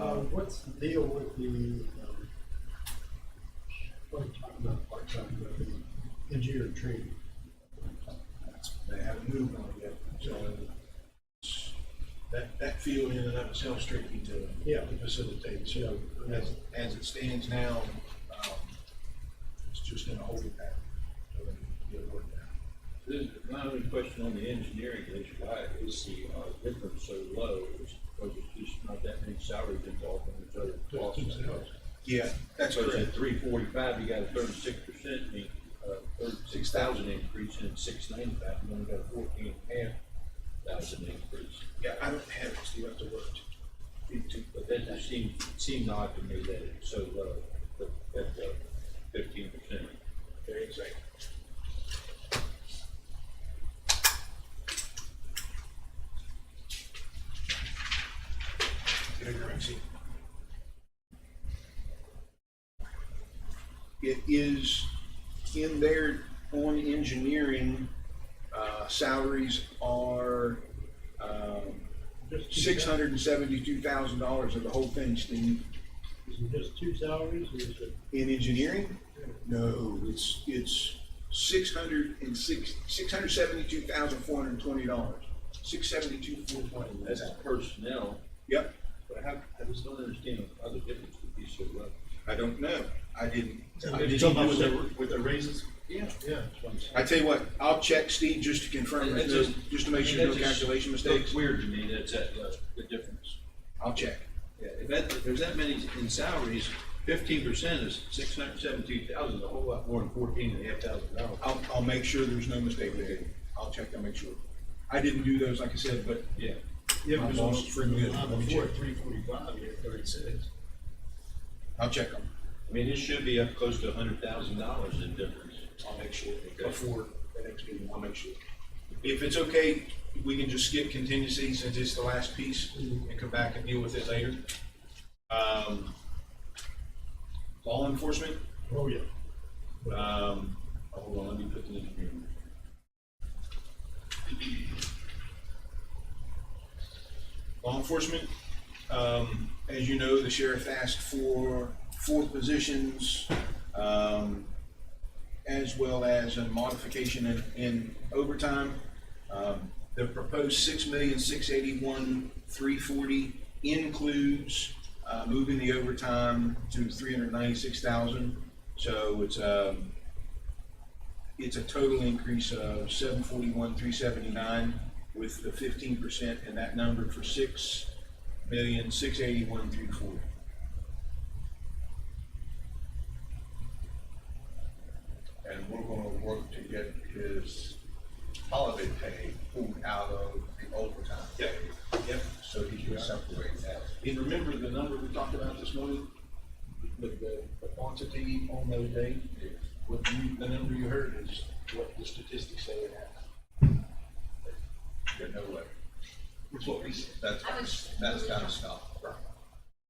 Uh, what's the deal with the, um, what are you talking about, part-time, but the engineer training? That's- They haven't moved on yet, so that, that field in and of itself strictly to, Yeah. to facilitate, so Yeah. as, as it stands now, um, it's just in a holding pattern. So they get it worked out. This, my only question on the engineering is why is the, uh, difference so low? Is because it's just not that many salaries involved in each other Just costs. themselves. Yeah, that's So correct. at three forty-five, you got a thirty-six percent, uh, thirty-six thousand increase, and six ninety-five, you only got a fourteen and a half thousand increase. Yeah, I don't have it, Steve, I have to work. Into- But that just seemed, seemed odd to me that it's so low, that, that, uh, fifteen percent. Very exact. Get a drink, see. It is in there on engineering, uh, salaries are, um, Just two six hundred and seventy-two thousand dollars of the whole thing, Steve. sal- Is it just two salaries or is it? In engineering? No, it's, it's six hundred and six, six hundred seventy-two thousand, four hundred and twenty dollars. Six seventy-two, four twenty. That's personnel, Yep, but how, I just don't understand how the difference would be so low. I don't know. I didn't. I You're didn't talking about do with it. the, with the raises? Yeah. Yeah, that's what I'm saying. I tell you what, I'll check Steve just to confirm, That's there's no- just to make I mean, sure no that just calculation looks mistakes. Weird to me, that's that, low, the difference. I'll check. Yeah, if that, if there's that many in salaries, fifteen percent is six hundred seventy-two thousand, a whole lot more than fourteen and a half thousand dollars. I'll, I'll make sure there's no mistake there. I'll check, I'll make sure. I didn't do those, like I said, but Yeah, My Yeah, boss because is for pretty good. Let me before check. three forty-five, you had thirty-six. I'll check them. I mean, it should be up close to a hundred thousand dollars in difference. I'll make sure Okay. before the next meeting, I'll make sure. If it's okay, we can just skip contingency since it's the last piece and come back and deal with it later. Um, Law enforcement, Oh, yeah. Um, hold on, let me put the engineer. in. law enforcement, um, as you know, the sheriff asked for four positions, um, as well as a modification in, in overtime. Um, the proposed six million, six eighty-one, three forty includes, uh, moving the overtime to three hundred ninety-six thousand. So it's, um, it's a total increase of seven forty-one, three seventy-nine with the fifteen percent and that number for six million, six eighty-one, three forty. and we're gonna work to get his holiday pay pulled out of the overtime. Yep. Yep. So he can separate that. And remember the number we talked about this morning? The, the the quantity on those days? What you, the number you heard is what the statistics say it happened. There's no way. It's what we said. That's, I was- that's gotta stop.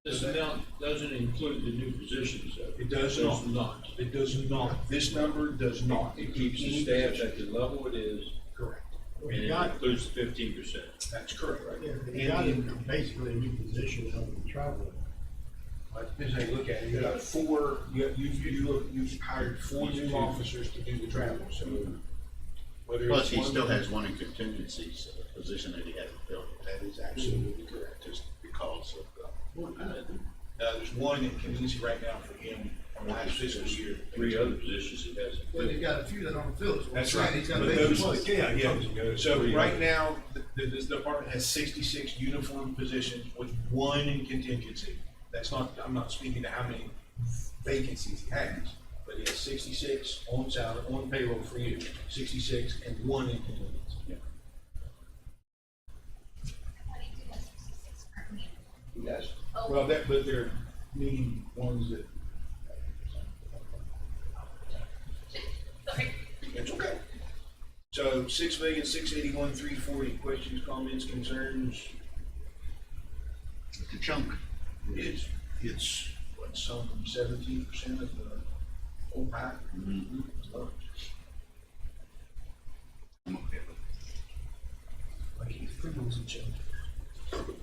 This amount doesn't include the new positions, though. It does not. It's not. It does not. This number does not. It keeps the staff at the level it is, Correct. and We it got, includes the fifteen percent. That's correct, right? yeah, And we got the- him basically a new position out of the travel. As I look at it, you got four, you, you, you, you've hired four new officers to do the travel, so. whether Plus, it's he one- still has one in contingency, so the position that he hasn't filled, That is absolutely correct. just because of, uh, Uh, there's one in contingency right now for him from last fiscal year. Three other positions it has. Well, they got a few that don't fill it. That's right. He's got a But big those- plus. Yeah, yeah. So Three. right now, the, the- this department has sixty-six uniform positions with one in contingency. That's not, I'm not speaking to how many vacancies he has, but he has sixty-six on salary, on payroll for you, sixty-six and one in contingency. Yes. Oh. Well, that, but they're mean ones that, Sorry. it's okay. So six million, six eighty-one, three forty, questions, comments, concerns? it's a chunk. It's, it's, what, something seventeen percent of the whole pack? I'm okay with it. Like, it's pretty much a joke.